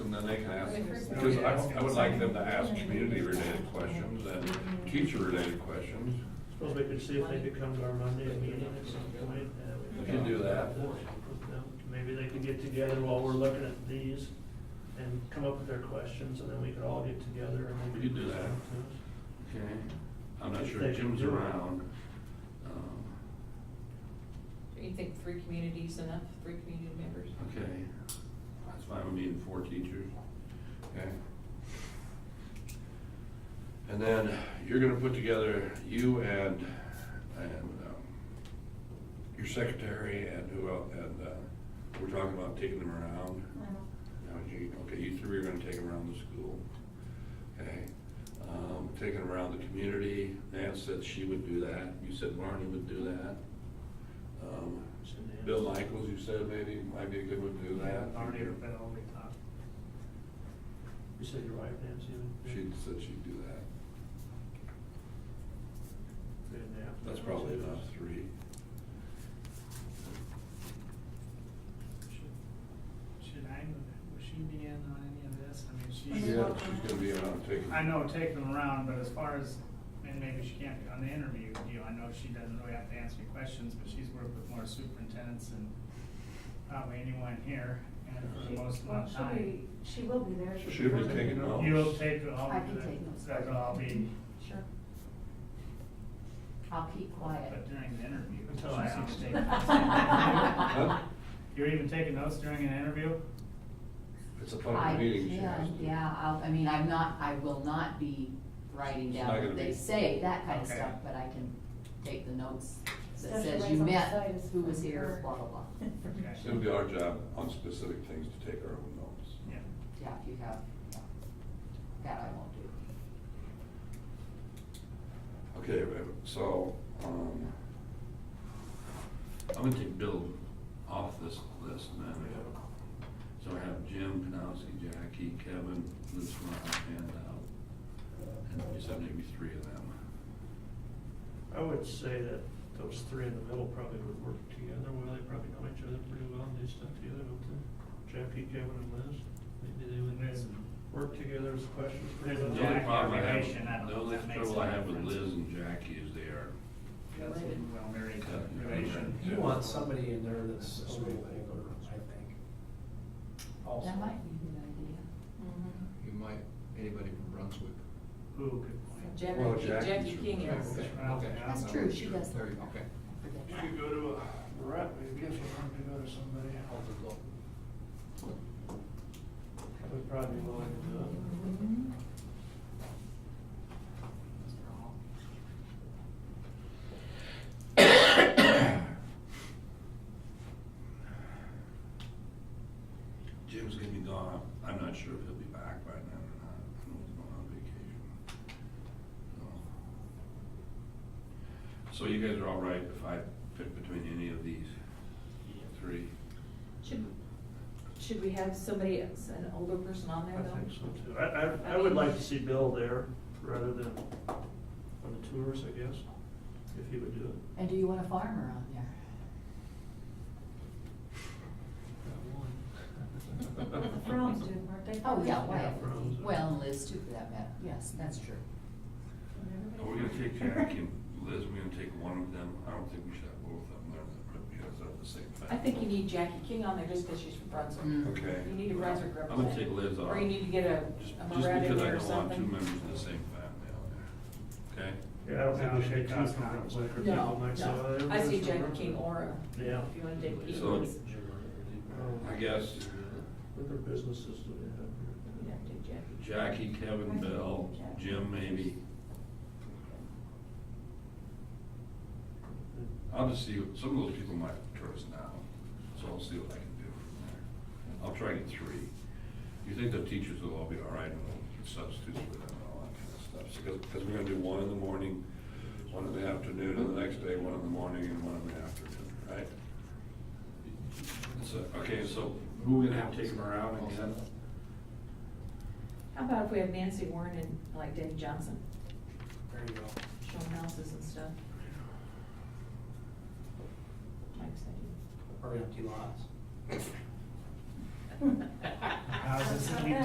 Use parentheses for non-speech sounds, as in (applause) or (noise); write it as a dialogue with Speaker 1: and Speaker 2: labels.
Speaker 1: then they can ask, because I, I would like them to ask community-related questions and teacher-related questions.
Speaker 2: Suppose we could see if they could come to our Monday meeting at some point. uh,
Speaker 1: We can do that.
Speaker 2: Maybe they could get together while we're looking at these and come up with their questions, and then we could all get together and
Speaker 1: We
Speaker 2: maybe.
Speaker 1: could do that. Okay. I'm not sure
Speaker 2: They can
Speaker 1: Jim's
Speaker 2: do it.
Speaker 1: around. Um,
Speaker 3: Do you think three communities enough, three community members?
Speaker 1: Okay, that's fine, we need four teachers, okay? And then you're gonna put together, you and, and, um, your secretary and who else, and, uh, we're talking about taking them around. Now, you- Okay, you three are gonna take them around the school, okay? Um, taking them around the community, Nance said she would do that, you said Barney would do that. Um, Bill Michaels, you said maybe, might be a good one to do that.
Speaker 2: Already, that already talked. You said your wife, Nancy? would-
Speaker 1: She said she'd do that.
Speaker 2: Three and a half.
Speaker 1: That's probably about three.
Speaker 4: Should I, would she be in on any of this? I mean,
Speaker 1: She's,
Speaker 4: she's.
Speaker 1: she's gonna be on taking.
Speaker 4: I know, take them around, but as far as, and maybe she can't be on the interview deal, I know she doesn't really have to answer any questions, but she's worked with more superintendents than probably anyone here, and for the most
Speaker 5: Well,
Speaker 4: amount of
Speaker 5: she'll be,
Speaker 4: time.
Speaker 5: she will be there.
Speaker 1: She'll be
Speaker 5: present.
Speaker 1: taking notes.
Speaker 4: You'll take all
Speaker 5: I
Speaker 4: of
Speaker 5: can
Speaker 4: the,
Speaker 5: take notes.
Speaker 4: that'll all be,
Speaker 5: Sure. I'll keep quiet.
Speaker 4: but during the interview,
Speaker 2: Until I
Speaker 4: she's gonna
Speaker 2: ask.
Speaker 4: take
Speaker 5: (laughs)
Speaker 1: Huh?
Speaker 4: notes. You're even taking notes during an interview?
Speaker 1: It's a
Speaker 5: I
Speaker 1: public meeting, she has
Speaker 5: can,
Speaker 1: to.
Speaker 5: yeah, I'll, I mean, I'm not, I will not be writing
Speaker 1: It's not
Speaker 5: down
Speaker 1: gonna
Speaker 5: what
Speaker 1: be-
Speaker 5: they say, that kind of
Speaker 4: Okay.
Speaker 5: stuff, but I can take the notes that
Speaker 6: Especially
Speaker 5: says
Speaker 6: right
Speaker 5: you
Speaker 6: on the side
Speaker 5: met,
Speaker 6: is
Speaker 5: who was
Speaker 6: from
Speaker 5: here,
Speaker 6: her.
Speaker 5: blah, blah, blah.
Speaker 4: (laughs) Okay.
Speaker 1: It's gonna be our job on specific things to take our own notes.
Speaker 4: Yeah.
Speaker 5: Yeah, if you have, yeah. That I won't do.
Speaker 1: Okay, we have- so, um, I'm gonna take Bill off this list, and then we have, so I have Jim, Panowski, Jackie, Kevin, Liz, Ron, and, uh, and you said maybe three of them.
Speaker 2: I would say that those three in the middle probably would work together, well, they probably know each other pretty well and do stuff together, don't they? Jackie, Kevin, and Liz, maybe they
Speaker 4: Liz
Speaker 2: would
Speaker 4: and-
Speaker 2: work together as questions pretty
Speaker 4: Liz
Speaker 1: The
Speaker 2: well.
Speaker 4: and
Speaker 1: only
Speaker 4: Jackie.
Speaker 1: problem I
Speaker 4: Jackie, I
Speaker 1: have, the
Speaker 4: don't know if
Speaker 1: only
Speaker 4: that makes
Speaker 1: trouble I
Speaker 4: any
Speaker 1: have with
Speaker 4: difference.
Speaker 1: Liz and Jackie is they are,
Speaker 4: That's a
Speaker 5: Related.
Speaker 4: well-married
Speaker 1: Yeah.
Speaker 4: relation.
Speaker 1: Yeah.
Speaker 7: You want somebody in there that's a little older, I think. Also.
Speaker 5: That might be a good idea.
Speaker 8: You might, anybody from Brunswick.
Speaker 4: Who could point?
Speaker 1: Well,
Speaker 3: Mm-hmm. Jackie,
Speaker 1: Jackie's from
Speaker 3: Jackie King is.
Speaker 1: Jackson.
Speaker 4: Okay.
Speaker 5: That's true, she does.
Speaker 8: There you go, okay.
Speaker 5: I forget
Speaker 2: You
Speaker 5: that.
Speaker 2: could go to a Brett, maybe, if you want to go to somebody, would probably be willing to do it.
Speaker 5: Mhm.
Speaker 4: Mr. Hall.
Speaker 1: Jim's gonna be gone, I'm not sure if he'll be back by then or not, I know he's going on vacation. So So you guys are all right if I pick between any of these three?
Speaker 3: Should, should we have somebody, else, an older person on there
Speaker 2: I
Speaker 3: though?
Speaker 2: think so too. I, I, I would like to see Bill there rather than on the tours, I guess, if he would do it.
Speaker 5: And do you want a farmer on there?
Speaker 6: The Frowns did, weren't they?
Speaker 5: Oh, yeah,
Speaker 2: Yeah,
Speaker 5: well,
Speaker 2: Browns.
Speaker 5: well, and Liz too, for that matter, yes, that's true.
Speaker 1: Are we gonna take Jack and Liz, we're gonna take one of them, I don't think we should have both of them there, but because they're the same thing.
Speaker 3: I think you need Jackie King on there just because she's from Brunswick.
Speaker 5: Mm.
Speaker 1: Okay.
Speaker 3: You need a Brunswick
Speaker 1: I'm gonna take
Speaker 3: representative.
Speaker 1: Liz off.
Speaker 3: Or you need to get a,
Speaker 1: Just
Speaker 3: a
Speaker 1: just
Speaker 3: Moret in
Speaker 1: because I don't
Speaker 3: there or
Speaker 1: want two
Speaker 3: something.
Speaker 1: members of the same family on there, okay?
Speaker 2: Yeah, I don't think we
Speaker 4: No,
Speaker 2: should
Speaker 4: it
Speaker 2: two
Speaker 4: does
Speaker 2: from
Speaker 4: not.
Speaker 2: Brunswick, or people
Speaker 3: No,
Speaker 2: might say, "Oh,
Speaker 3: no.
Speaker 2: they're
Speaker 3: I see
Speaker 2: from
Speaker 3: Jackie
Speaker 2: Brunswick."
Speaker 3: King or, a-
Speaker 2: Yeah. Oh,
Speaker 3: if you want to take either.
Speaker 1: So-
Speaker 3: ones.
Speaker 1: I guess
Speaker 2: What other businesses do they have?
Speaker 3: You'd have to take
Speaker 1: Jackie,
Speaker 3: Jackie.
Speaker 1: Kevin, Bill, Jim maybe. I'll just see, some of those people might tour us now, so I'll see what I can do from there. I'll try to get three. You think the teachers will all be all right and we'll substitute for them and all that kind of stuff? Because, because we're gonna do one in the morning, one in the afternoon, and the next day, one in the morning and one in the afternoon, right? So, okay, so who we gonna have taking around again?
Speaker 3: How about if we have Nancy Warren and like Danny Johnson,
Speaker 7: There you go.
Speaker 3: showing houses and stuff? Mike's
Speaker 7: Or empty lots.
Speaker 3: idea.
Speaker 4: Houses,
Speaker 6: That's not
Speaker 4: we
Speaker 6: bad.